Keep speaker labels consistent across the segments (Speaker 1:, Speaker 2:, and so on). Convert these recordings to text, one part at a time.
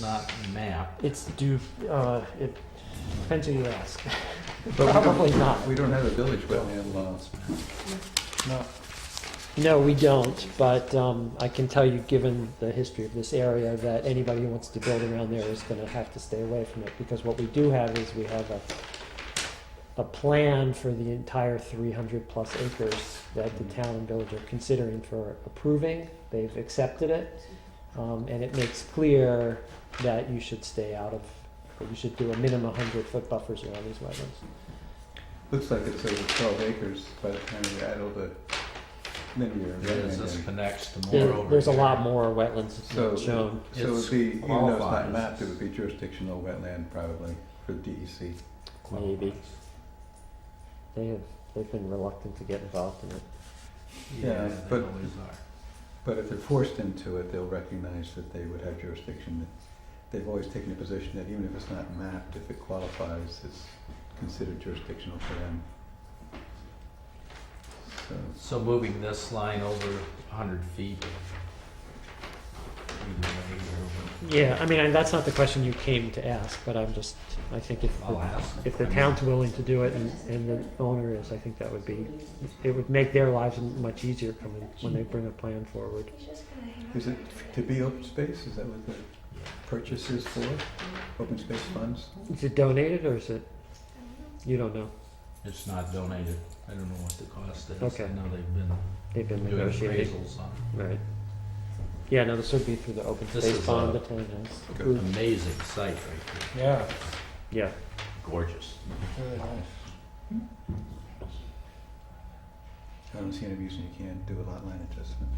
Speaker 1: not mapped.
Speaker 2: It's due, uh, it depends who you ask.
Speaker 3: But we don't-
Speaker 2: Probably not.
Speaker 3: We don't have a village wetland laws.
Speaker 2: No. No, we don't, but um, I can tell you, given the history of this area, that anybody who wants to build around there is gonna have to stay away from it, because what we do have is we have a, a plan for the entire three hundred plus acres that the town and village are considering for approving. They've accepted it, um, and it makes clear that you should stay out of, that you should do a minimum hundred foot buffers around these wetlands.
Speaker 3: Looks like it's over twelve acres by the time you add all the linear
Speaker 1: It is, this
Speaker 3: wetland. in.
Speaker 1: connects to more
Speaker 2: There-
Speaker 1: over
Speaker 2: There's a
Speaker 1: here.
Speaker 2: lot more wetlands
Speaker 3: So-
Speaker 2: shown.
Speaker 3: So it
Speaker 1: It's
Speaker 3: would be, even though it's
Speaker 1: qualifies.
Speaker 3: not mapped, it would be jurisdictional wetland probably for E DEC.
Speaker 2: Maybe. They have, they've been reluctant to get involved in it.
Speaker 1: Yeah,
Speaker 3: Yeah,
Speaker 1: they
Speaker 3: but-
Speaker 1: always are.
Speaker 3: But if they're forced into it, they'll recognize that they would have jurisdiction. They've always taken a position that even if it's not mapped, if it qualifies, it's considered jurisdictional for them. So,
Speaker 1: So moving this line over hundred feet. either way or-
Speaker 2: Yeah, I mean, and that's not the question you came to ask, but I'm just, I think if,
Speaker 1: I'll
Speaker 2: the-
Speaker 1: ask.
Speaker 2: if
Speaker 1: I
Speaker 2: the
Speaker 1: mean,
Speaker 2: town's willing to do it and, and the owner is, I think that would be, it would make their lives much easier coming, when they bring a plan forward.
Speaker 3: is it to be open space? Is that what the purchase is for? Open space funds?
Speaker 2: Is it donated or is it, you don't know,
Speaker 1: It's not donated. I don't know what the cost is.
Speaker 2: Okay.
Speaker 1: I know they've been
Speaker 2: they've been
Speaker 1: doing
Speaker 2: negotiating.
Speaker 1: appraisals on
Speaker 2: Right. Yeah, no, this would be through the open
Speaker 1: This
Speaker 2: space
Speaker 1: is,
Speaker 2: bond
Speaker 1: uh,
Speaker 2: the town has
Speaker 3: Okay.
Speaker 1: it.
Speaker 2: approved.
Speaker 1: Amazing site right there.
Speaker 4: Yeah,
Speaker 2: Yeah,
Speaker 1: Gorgeous.
Speaker 4: really nice.
Speaker 3: I don't see any reason you can't do a lot line adjustment.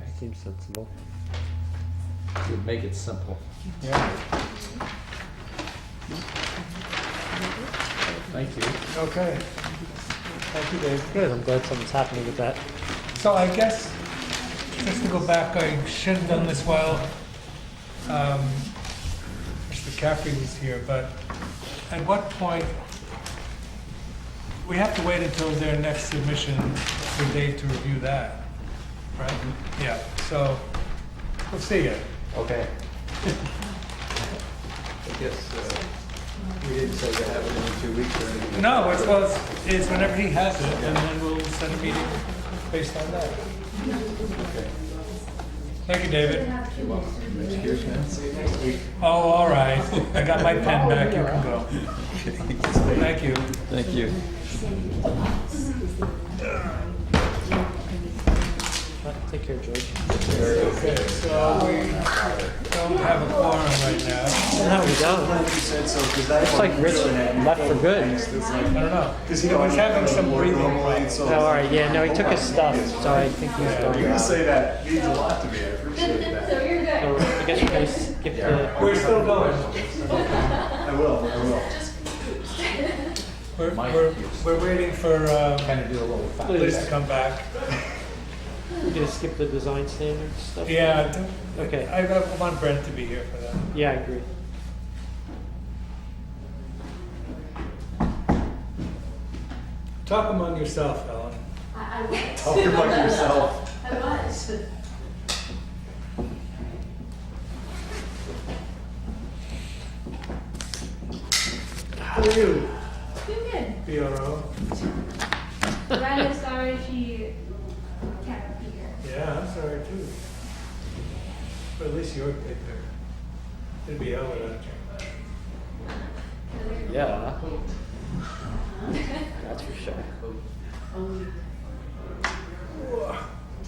Speaker 1: Okay.
Speaker 2: seems sensible.
Speaker 1: Would make it simple.
Speaker 4: Yeah,
Speaker 1: Thank you.
Speaker 4: okay. Thank you, Dave.
Speaker 2: Good, I'm glad something's happening with that.
Speaker 4: So I guess, just to go back, I should have done this while um, Mr. Caffrey was here, but at what point, we have to wait until their next submission for Dave to review that, right? Yeah, so, we'll see you.
Speaker 3: Okay. I guess, uh, we didn't say to have it in two weeks or anything.
Speaker 4: No, it's, well, it's- it's whenever he has it, and then we'll set a meeting based on that.
Speaker 3: Okay.
Speaker 4: Thank you, David.
Speaker 3: Excuse me?
Speaker 4: Oh, all right. I got my pen back. You can go. Thank you.
Speaker 3: Thank you.
Speaker 2: Take care, George.
Speaker 4: So we don't have a quorum right now.
Speaker 2: No, we don't. It's like Rich left for good.
Speaker 4: I don't know.
Speaker 5: Because you know,
Speaker 4: He's having some breathing
Speaker 5: normally,
Speaker 4: problems.
Speaker 5: so
Speaker 2: Oh, all right, yeah, no, he took his stuff, so I think he's
Speaker 5: you're
Speaker 2: going
Speaker 5: gonna
Speaker 2: out.
Speaker 5: say that means a lot to me. I appreciate that.
Speaker 6: So you're good.
Speaker 2: So I guess we're gonna skip the,
Speaker 4: We're still going.
Speaker 5: I will. I will.
Speaker 4: We're, we're, we're waiting for um,
Speaker 1: Kind of do a little. fact
Speaker 4: Liz to come back.
Speaker 2: we're gonna skip the design standards stuff?
Speaker 4: Yeah.
Speaker 2: Okay.
Speaker 4: I, I want Brent to be here for that.
Speaker 2: Yeah, I agree.
Speaker 4: Talk among yourself, Ellen.
Speaker 6: I, I was.
Speaker 5: Talk among yourself.
Speaker 6: I was.
Speaker 4: How are you?
Speaker 6: You're good.
Speaker 4: Be all right.
Speaker 6: Ryan is sorry she can't be here.
Speaker 4: Yeah, I'm sorry too. But at least you're good there. It'd be Ellen. I think.
Speaker 2: Yeah. That's for sure.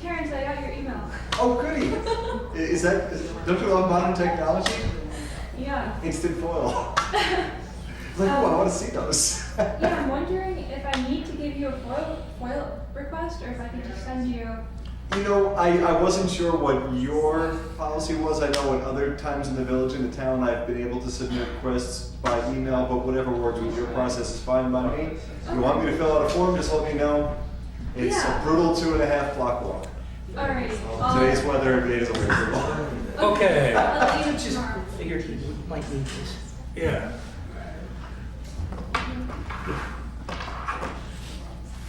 Speaker 6: Terrence, I got your email.
Speaker 5: Oh, goody. I- Is that? Is, don't you love modern technology?
Speaker 6: Yeah.
Speaker 5: Instant foil. It's like, oh, I want to see those.
Speaker 6: Yeah, I'm wondering if I need to give you a FOIL, FOIL request or if I could just send you.
Speaker 5: You know, I, I wasn't sure what your policy was. I know at other times in the village and the town, I've been able to submit requests by email, but whatever works with your process is fine by me. If you want me to fill out a form, just let me know. It's
Speaker 6: Yeah.
Speaker 5: a brutal two and a half block walk.
Speaker 6: Alright.
Speaker 5: Today's weather made it a weird brutal.
Speaker 4: Okay.
Speaker 6: Um, I'll leave it tomorrow.
Speaker 7: figured he might need this.
Speaker 4: Yeah.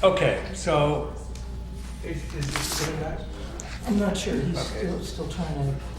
Speaker 4: Okay, so, is, is this good or not?
Speaker 7: I'm not sure, he's
Speaker 4: Okay.
Speaker 7: still, still trying to